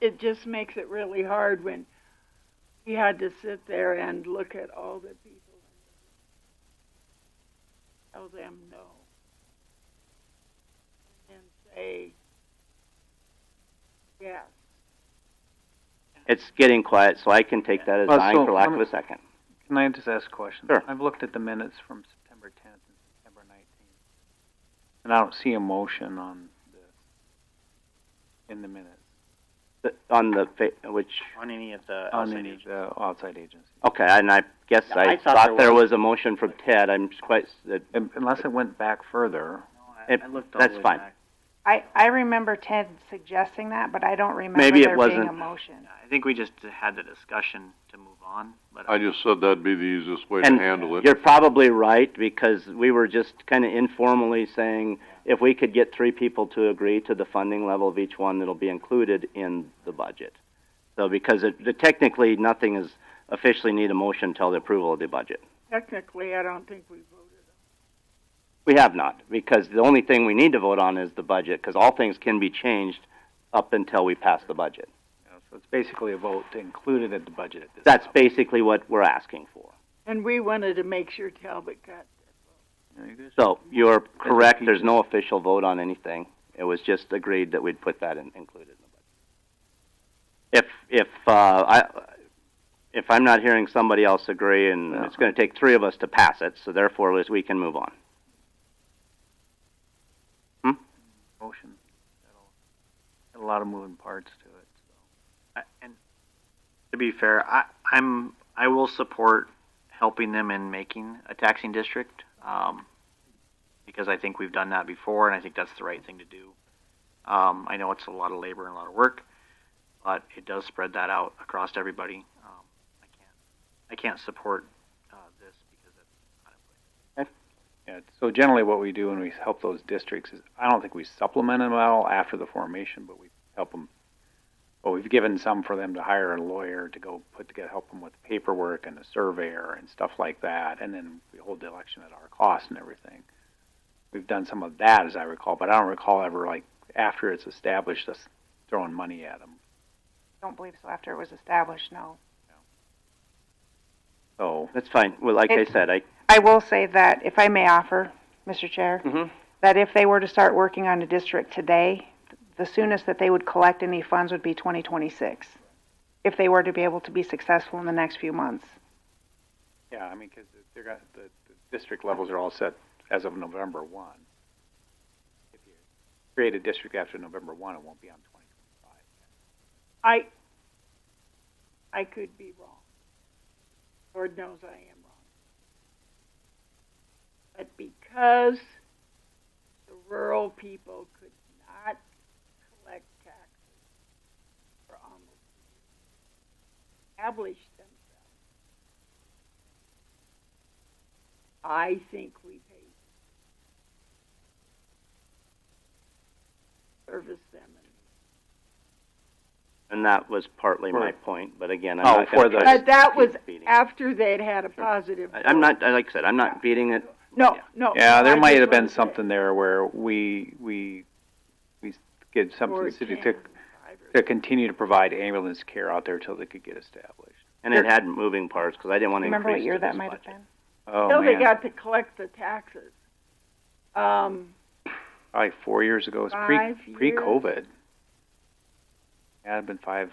it just makes it really hard when we had to sit there and look at all the people and tell them no. And then say yes. It's getting quiet, Uh, so I can take that as Well, dying so for lack I'm- of a second. Can I just ask a question? Sure. I've looked at the minutes from September tenth and September nineteenth, and I don't see a motion on this in the minutes, The- On the, fa- which, on any of the on outside any agents. of the outside agency. okay, and I guess Yeah, I thought there was a motion from Ted, I'm just quite, that- Un- Unless it went back further, No, It- I, I looked all that's the way fine. back. I, I remember Ted suggesting that, but I don't remember Maybe it there being a wasn't. motion. I think we just had the discussion to move on, but uh, I just said that'd be the easiest way to And handle it. You're probably right, because we were just kind of informally saying, if we could get three people to agree to the funding level of each one, it'll be included in the budget. So because it, the- technically, nothing is officially need a motion till the approval of the budget. Technically, I don't think we voted. We have not, because the only thing we need to vote on is the budget, because all things can be changed up until we pass the budget. you know, so it's basically a vote to include it in the budget at this. That's level. basically what we're asking for. And we wanted to make sure Talbot got You know, you just- So you're correct, there's no official vote on anything. It was just agreed that we'd put that in, included in the budget. If, if, uh, I, if I'm not hearing somebody else agree, and it's gonna take three of us to pass it, so therefore, Liz, we can move on. Motion, that'll- a lot of moving parts to it, so. I- and to be fair, I, I'm I will support helping them in making a taxing district um, because I think we've done that before, and I think that's the right thing to do. Um, I know it's a lot of labor and a lot of work, but it does spread that out across everybody. Um, I can't I can't support uh, this because it's not in place. Yeah, so generally what we do when we help those districts is, I don't think we supplement them at all after the formation, but we help them. Well, we've given some for them to hire a lawyer to go put together, help them with paperwork and a surveyor and stuff like that, and then we hold the election at our cost and everything. We've done some of that, as I recall, but I don't recall ever, like, after it's established, us throwing money at them. Don't believe so after it was established, no. So, That's fine, well, like I It- said, I, I will say that, if I may offer, Mr. Chair, Mhm. that if they were to start working on a district today, the soonest that they would collect any funds would be 2026, if they were to be able to be successful in the next few months. yeah, I mean, 'cause they're got, the, the district levels are all set as of November one. If you create a district after November one, it won't be on twenty twenty-five. I, I could be wrong. Lord knows I am wrong. But because the rural people could not collect taxes for almost established themselves, I think we paid service them and and that was partly my For- point, but again, I'm Oh, not gonna for the- try to But that keep was beating it. after they'd had a positive. I- I'm not, I- like I said, I'm not beating it, No, no. Yeah, there I might just have been wanted to- something there where we, we, we give something to the city to, 14, to continue to provide ambulance care out there till they could get established. and it had moving parts, because I didn't want to increase Remember what year to that this might have budget. been? Oh, Till they man, got to collect the taxes. Um, probably four years ago, it was pre, Five pre-COVID. Yeah, it'd been five,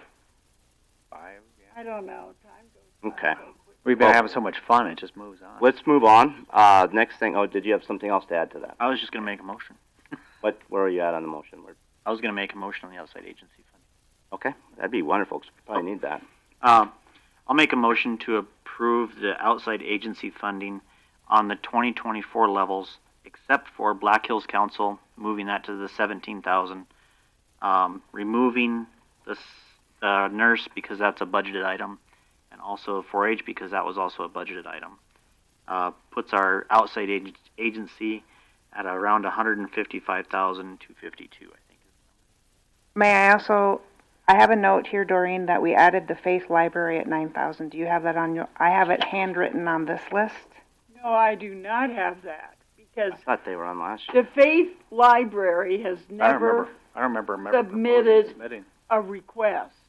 five, yeah. I don't know, time goes by. Okay. so quick. We've been Well- having so much fun, it just moves on. Let's move on, uh, next thing, oh, did you have something else to add to that? I was just going to make a motion. What, where are you at on the motion? We're- I was going to make a motion on the outside agency fund. Okay, that'd be wonderful, 'cause we Oh. probably need that. Um, I'll make a motion to approve the outside agency funding on the twenty twenty-four levels, except for Black Hills Council, moving that to the seventeen thousand. Um, removing the, s- uh, nurse because that's a budgeted item, and also four H because that was also a budgeted item. Uh, puts our outside ag- agency at around a hundred and fifty-five thousand, two fifty-two, I think. May I also, I have a note here, Doreen, that we added the Faith Library at 9,000. Do you have that on your, I have it handwritten on this list. No, I do not have that, because I thought they were on last year. the Faith Library has I don't never, remember, I don't remember, remember proposing submitted submitting. a request